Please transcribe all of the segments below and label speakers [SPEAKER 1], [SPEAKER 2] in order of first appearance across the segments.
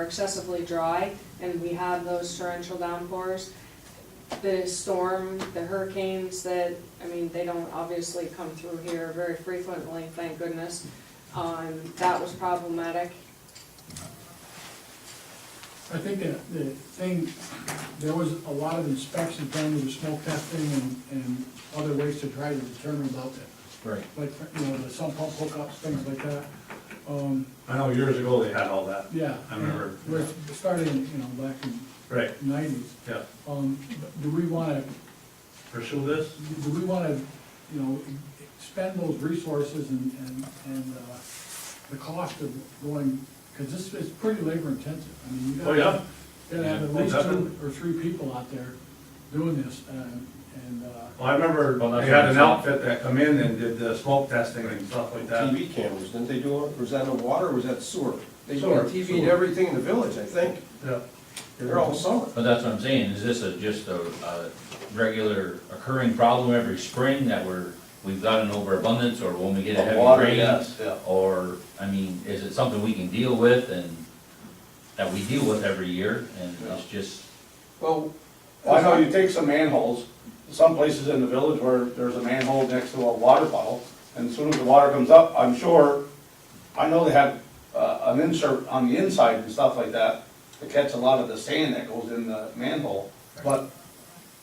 [SPEAKER 1] excessively dry, and we have those torrential downpours. The storm, the hurricanes that, I mean, they don't obviously come through here very frequently, thank goodness. Um, that was problematic.
[SPEAKER 2] I think that the thing, there was a lot of inspections done with the smoke testing and, and other ways to try to determine about that.
[SPEAKER 3] Right.
[SPEAKER 2] Like, you know, the sump pump hookups, things like that. Um,
[SPEAKER 3] I know years ago they had all that.
[SPEAKER 2] yeah.
[SPEAKER 3] I remember.
[SPEAKER 2] We're starting, you know, back in
[SPEAKER 3] Right,
[SPEAKER 2] nineties.
[SPEAKER 3] yeah.
[SPEAKER 2] Um, do we wanna,
[SPEAKER 3] Pursue this?
[SPEAKER 2] do we wanna, you know, spend those resources and, and, and, uh, the cost of going, cause this is pretty labor intensive. I mean, you gotta.
[SPEAKER 3] Oh, yeah?
[SPEAKER 2] Gotta have at
[SPEAKER 3] Yeah,
[SPEAKER 2] least two
[SPEAKER 3] definitely.
[SPEAKER 2] or three people out there doing this, and, and, uh,
[SPEAKER 3] Well, I remember
[SPEAKER 4] Well, that's
[SPEAKER 3] they had
[SPEAKER 4] what
[SPEAKER 3] an
[SPEAKER 4] I'm
[SPEAKER 3] outfit that come in and did the smoke testing and stuff like that.
[SPEAKER 5] TV cameras, didn't they do it, was that in the water, or was that sewer? They did
[SPEAKER 3] Sewer,
[SPEAKER 5] TV and
[SPEAKER 3] sewer.
[SPEAKER 5] everything in the village, I think,
[SPEAKER 3] Yeah.
[SPEAKER 5] they're all summer.
[SPEAKER 4] But that's what I'm saying, is this a, just a, a regular occurring problem every spring that we're, we've got an overabundance, or when we get a
[SPEAKER 6] Of
[SPEAKER 4] heavy
[SPEAKER 6] water,
[SPEAKER 4] rain?
[SPEAKER 6] yes, yeah.
[SPEAKER 4] Or, I mean, is it something we can deal with and, that we deal with every year, and it's just,
[SPEAKER 5] Well,
[SPEAKER 6] Well, I know you take some manholes, some places in the village where there's a manhole next to a water puddle, and as soon as the water comes up, I'm sure, I know they have, uh, an insert on the inside and stuff like that to catch a lot of the sand that goes in the manhole, but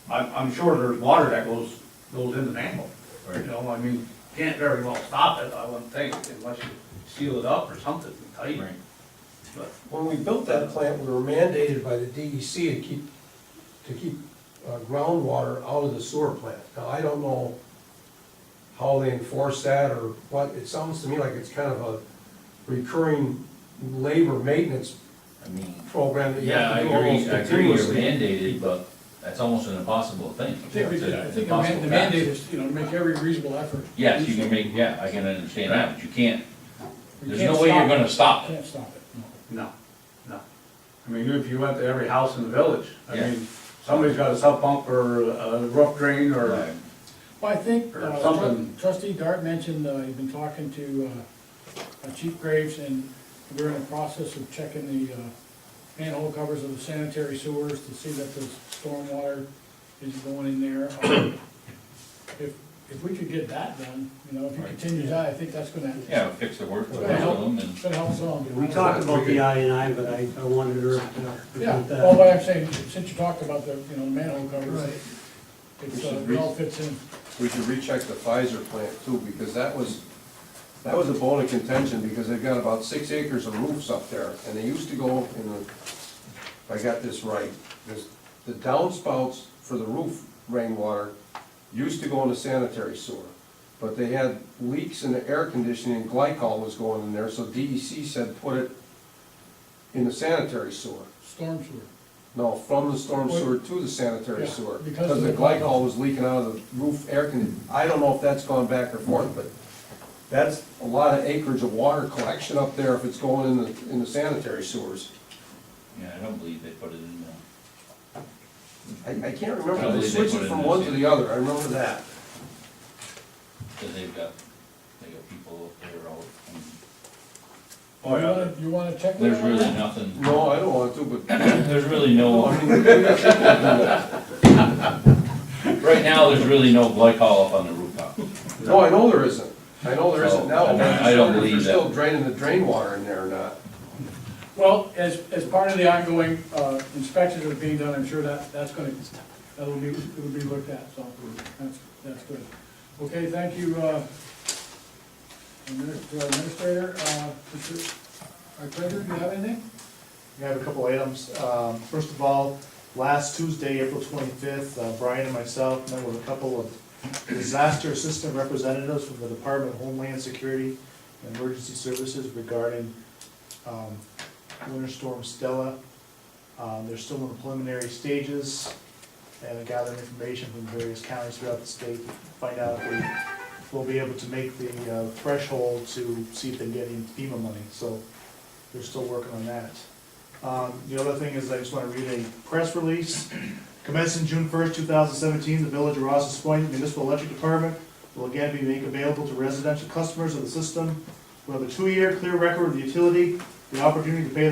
[SPEAKER 6] I'm, I'm sure there's water that goes, goes in the manhole. You
[SPEAKER 4] Right.
[SPEAKER 6] know, I mean, can't very well stop it, I wouldn't think, unless you seal it up or something, tight.
[SPEAKER 4] right,
[SPEAKER 6] But
[SPEAKER 5] when we built that plant, we were mandated by the DEC to keep, to keep uh, groundwater out of the sewer plant. Now, I don't know how they enforce that or what, it sounds to me like it's kind of a recurring labor maintenance
[SPEAKER 4] I mean,
[SPEAKER 5] program that you
[SPEAKER 4] yeah,
[SPEAKER 5] have
[SPEAKER 4] I
[SPEAKER 5] to do
[SPEAKER 4] agree,
[SPEAKER 5] almost
[SPEAKER 4] I agree, you're
[SPEAKER 5] continuously.
[SPEAKER 4] mandated, but that's almost an impossible thing.
[SPEAKER 2] I think we
[SPEAKER 4] It's
[SPEAKER 2] could,
[SPEAKER 4] an
[SPEAKER 2] I think the man-
[SPEAKER 4] impossible
[SPEAKER 2] the mandate
[SPEAKER 4] task.
[SPEAKER 2] is, you know, make every reasonable effort.
[SPEAKER 4] Yes, you can make, yeah, I can understand that, but you can't,
[SPEAKER 2] We
[SPEAKER 4] there's
[SPEAKER 2] can't
[SPEAKER 4] no way you're
[SPEAKER 2] stop it.
[SPEAKER 4] gonna stop it.
[SPEAKER 2] Can't stop it.
[SPEAKER 6] No, no. I mean, if you went to every house in the village, I
[SPEAKER 4] Yeah.
[SPEAKER 6] mean, somebody's got a sub pump or a roof drain or,
[SPEAKER 4] Right.
[SPEAKER 2] Well, I think
[SPEAKER 6] Or
[SPEAKER 2] uh,
[SPEAKER 6] something.
[SPEAKER 2] trustee Dart mentioned, uh, he's been talking to uh, uh, Chief Graves, and we're in the process of checking the uh, manhole covers of the sanitary sewers to see that the stormwater is going in there. Um, If, if we could get that done, you know, if he
[SPEAKER 4] Right.
[SPEAKER 2] continues that, I think that's gonna, it's
[SPEAKER 4] Yeah, fix the work for
[SPEAKER 2] gonna help,
[SPEAKER 4] them and.
[SPEAKER 2] it's gonna help some.
[SPEAKER 7] We talked about the I and I, but I, I wanted her to.
[SPEAKER 2] Yeah,
[SPEAKER 7] present that.
[SPEAKER 2] well, what I'm saying, since you talked about the, you know, manhole covers, it's, uh, it all fits in.
[SPEAKER 5] We should recheck the Pfizer plant too, because that was, that was a bone of contention, because they've got about six acres of roofs up there, and they used to go in the, if I got this right, this, the downspouts for the roof rainwater used to go in the sanitary sewer, but they had leaks in the air conditioning, glycol was going in there, so DEC said put it in the sanitary sewer.
[SPEAKER 2] Storm sewer.
[SPEAKER 5] No, from the storm sewer to the sanitary
[SPEAKER 2] Yeah,
[SPEAKER 5] sewer,
[SPEAKER 2] because
[SPEAKER 5] because
[SPEAKER 2] of
[SPEAKER 5] the
[SPEAKER 2] the glycol.
[SPEAKER 5] glycol was leaking out of the roof air conditioning. I don't know if that's gone back or forth, but that's a lot of acreage of water collection up there if it's going in the, in the sanitary sewers.
[SPEAKER 4] Yeah, I don't believe they put it in the,
[SPEAKER 5] I, I can't
[SPEAKER 4] I
[SPEAKER 5] remember, they
[SPEAKER 4] believe they
[SPEAKER 5] switched
[SPEAKER 4] put it
[SPEAKER 5] it
[SPEAKER 4] in
[SPEAKER 5] from
[SPEAKER 4] the
[SPEAKER 5] one to
[SPEAKER 4] same-
[SPEAKER 5] the other, I remember that.
[SPEAKER 4] because they've got, they got people up there all, I mean,
[SPEAKER 6] oh
[SPEAKER 2] You
[SPEAKER 6] yeah.
[SPEAKER 2] wanna, you wanna check that?
[SPEAKER 4] there's
[SPEAKER 2] out?
[SPEAKER 4] really nothing,
[SPEAKER 5] No, I don't want to, but,
[SPEAKER 4] there's really no. Right now, there's really no glycol up on the rooftop.
[SPEAKER 5] no, I know there isn't. I know there isn't now, but
[SPEAKER 4] I
[SPEAKER 5] I'm
[SPEAKER 4] don't
[SPEAKER 5] wondering
[SPEAKER 4] believe
[SPEAKER 5] if
[SPEAKER 4] that.
[SPEAKER 5] they're still draining the drain water in there or not.
[SPEAKER 2] Well, as, as part of the ongoing uh, inspections that are being done, I'm sure that, that's gonna, that'll be, it'll be looked at, so that's, that's good. Okay, thank you, uh, Admin- uh, Administrator, uh, Mr. Arclager, do you have anything?
[SPEAKER 8] We have a couple items. Um, First of all, last Tuesday, April 25th, uh, Brian and myself met with a couple of disaster assistant representatives from the Department of Homeland Security and Emergency Services regarding um, Winter Storm Stella. Uh, They're still in the preliminary stages and gathering information from various counties throughout the state to find out if we will be able to make the uh, threshold to see if they get any FEMA money. So they're still working on that. Um, The other thing is I just want to read a press release. Commencing June first, two thousand seventeen, the Village of Rouse's Point Municipal Electric Department will again be made available to residential customers of the system who have a two-year clear record of the utility, the opportunity to pay